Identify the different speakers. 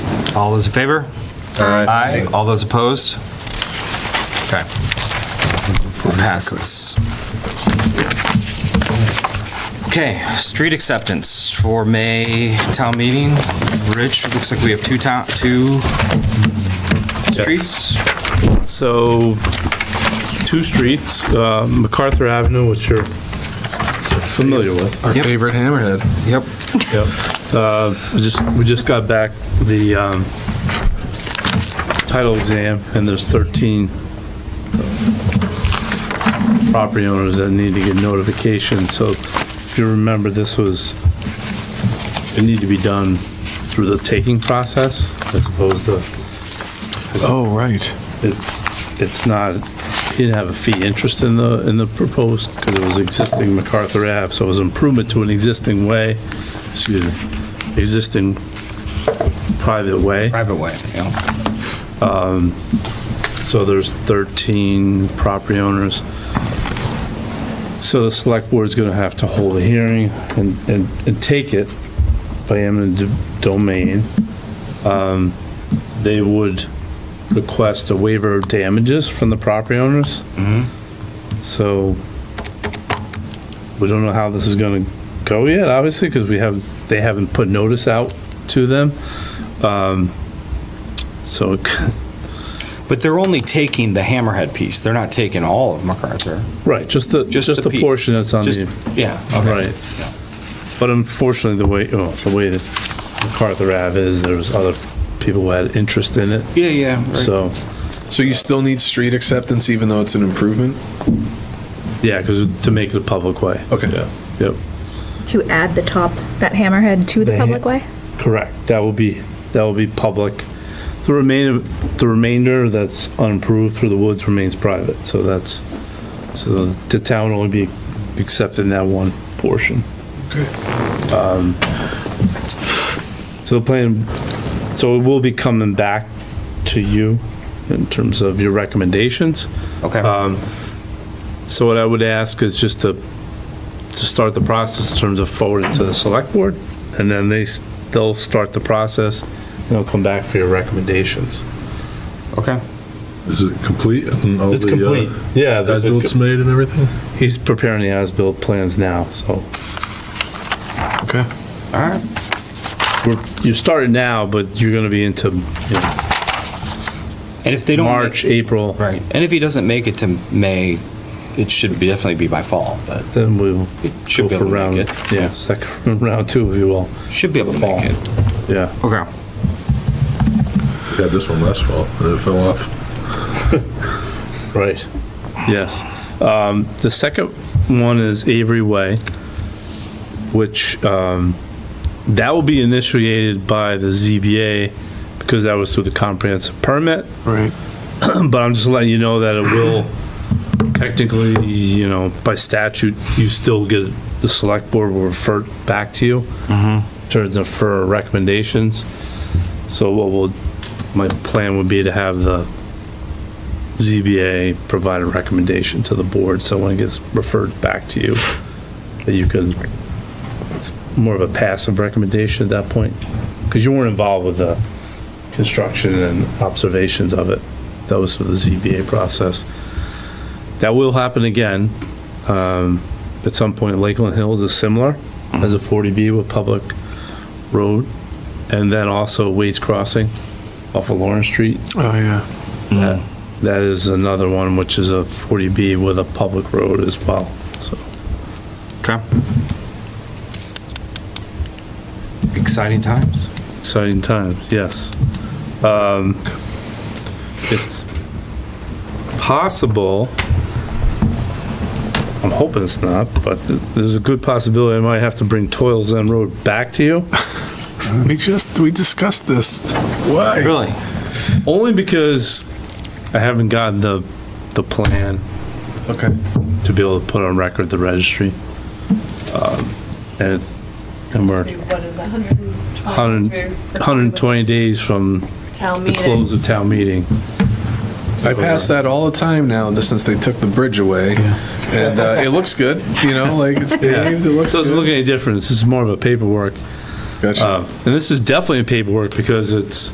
Speaker 1: All those in favor? Aye. All those opposed? Okay. Passes. Okay, street acceptance for May town meeting. Rich, looks like we have two town, two streets.
Speaker 2: So, two streets, uh, MacArthur Avenue, which you're familiar with.
Speaker 3: Our
Speaker 1: Yep.
Speaker 3: favorite hammerhead.
Speaker 1: Yep.
Speaker 2: Yep. Uh, we Just, we just got back the um, title exam, and there's 13 uh, property owners that need to get notification. So if you remember, this was, it needed to be done through the taking process as opposed to
Speaker 3: Oh, right.
Speaker 2: it's, it's not, he didn't have a fee interest in the, in the proposed, because it was existing MacArthur Ave, so it was improvement to an existing way, excuse me, existing private way.
Speaker 1: Private way, yeah.
Speaker 2: So there's 13 property owners. So the select board's going to have to hold a hearing and, and, and take it by eminent do- domain. Um, They would request a waiver of damages from the property owners. So we don't know how this is going to go yet, obviously, because we have, they haven't put notice out to them. Um, So it c-
Speaker 4: But they're only taking the hammerhead piece. They're not taking all of MacArthur.
Speaker 2: Right, just the,
Speaker 4: Just
Speaker 2: just
Speaker 4: the
Speaker 2: the
Speaker 4: peak.
Speaker 2: portion that's on
Speaker 4: Just,
Speaker 2: the,
Speaker 4: yeah,
Speaker 2: right. But unfortunately, the way, oh, the way that MacArthur Ave is, there was other people who had interest in it,
Speaker 4: yeah, yeah. right.
Speaker 2: so,
Speaker 3: So you still need street acceptance even though it's an improvement?
Speaker 2: yeah, because to make it a public way.
Speaker 3: Okay.
Speaker 2: Yeah, Yep,
Speaker 5: To add the top, that hammerhead to the
Speaker 2: The ha-
Speaker 5: public way?
Speaker 2: correct, that will be, that will be public. The remainder, the remainder that's unimproved through the woods remains private, so that's, so the town will only be accepting that one portion. Um, So the plan, so it will be coming back to you in terms of your recommendations. Uh,
Speaker 4: Okay.
Speaker 2: Um, So what I would ask is just to, to start the process in terms of forward it to the select board, and then they, s- they'll start the process, and they'll come back for your recommendations.
Speaker 4: Okay.
Speaker 6: Is it complete? and all
Speaker 2: It's
Speaker 6: the, uh,
Speaker 2: complete, yeah. the-
Speaker 6: As-bilt's
Speaker 2: it's com-
Speaker 6: made and everything?
Speaker 2: He's preparing the as-built plans now, so
Speaker 3: Okay.
Speaker 4: All right.
Speaker 2: we're, you started now, but you're gonna be into, you know,
Speaker 4: And if they don't
Speaker 2: March,
Speaker 4: make,
Speaker 2: April,
Speaker 4: right? And if he doesn't make it to May, it should be definitely be by fall, but
Speaker 2: then we'll
Speaker 4: it
Speaker 2: go
Speaker 4: should be
Speaker 2: for
Speaker 4: able to
Speaker 2: round,
Speaker 4: make it.
Speaker 2: yeah, second, round two, if you will,
Speaker 4: Should be able to make it.
Speaker 2: yeah.
Speaker 1: Okay.
Speaker 6: We Had this one last fall, and it fell off.
Speaker 2: Right, yes. Um, The second one is Avery Way, which, um, that will be initiated by the ZBA because that was through the comprehensive permit,
Speaker 3: Right.
Speaker 2: but I'm just letting you know that it will technically, you know, by statute, you still get, the select board will refer back to you. Turns up for recommendations. So what will, my plan would be to have the ZBA provide a recommendation to the board, so when it gets referred back to you, that you can, it's more of a passive recommendation at that point, because you weren't involved with the construction and observations of it. That was through the ZBA process. That will happen again. Um, At some point, Lakeland Hills is similar as a 40B with public road, and then also Wade's Crossing off of Lawrence Street.
Speaker 3: Oh, yeah.
Speaker 2: That That is another one, which is a 40B with a public road as well, so.
Speaker 1: Okay. Exciting times.
Speaker 2: Exciting times, yes. Um, It's possible, I'm hoping it's not, but th- there's a good possibility I might have to bring Toils End Road back to you.
Speaker 3: We just, we discussed this. Why?
Speaker 1: Really?
Speaker 2: Only because I haven't gotten the, the plan
Speaker 3: Okay.
Speaker 2: to be able to put on record the registry. Um, And it's, and we're
Speaker 7: What is 120?
Speaker 2: 100 120 days from
Speaker 7: Town
Speaker 2: the
Speaker 7: meeting.
Speaker 2: close of town meeting.
Speaker 3: I pass that all the time now, this- since they took the bridge away. And uh, it looks good, you know, like it's paved, it looks
Speaker 2: So it's
Speaker 3: good.
Speaker 2: looking any different, this is more of a paperwork.
Speaker 3: Gotcha.
Speaker 2: Uh, And this is definitely a paperwork because it's,